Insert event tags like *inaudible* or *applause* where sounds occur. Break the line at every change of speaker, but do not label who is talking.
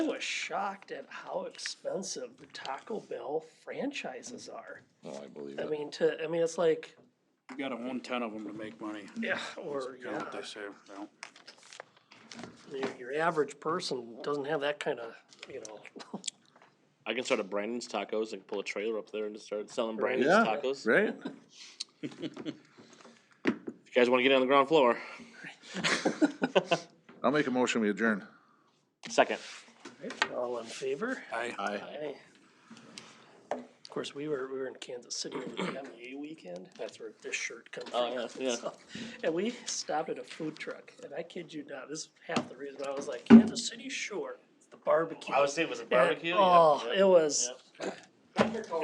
I was shocked at how expensive the Taco Bell franchises are.
No, Oh, I believe
I
it.
mean, to, I mean, it's like,
You gotta own ten of them to make money.
yeah, or,
You know
yeah,
what they say, you know?
your, your average person doesn't have that kind of, you know,
I can start a Brandon's Tacos and pull a trailer up there and just start selling Brandon's
Yeah, *laughs*
Tacos.
right?
If you guys want to get on the ground floor,
I'll make a motion, we adjourn.
second.
all in favor.
I,
Aye.
Aye. Of course, we were, we were in Kansas City over the MEA weekend, that's where this shirt comes
Oh,
from.
yeah, yeah.
So, And we stopped at a food truck, and I kid you not, this is half the reason I was like, Kansas City, sure, it's the barbecue.
I was saying, was it
And-
barbecue? Yeah,
Oh,
yeah.
it was.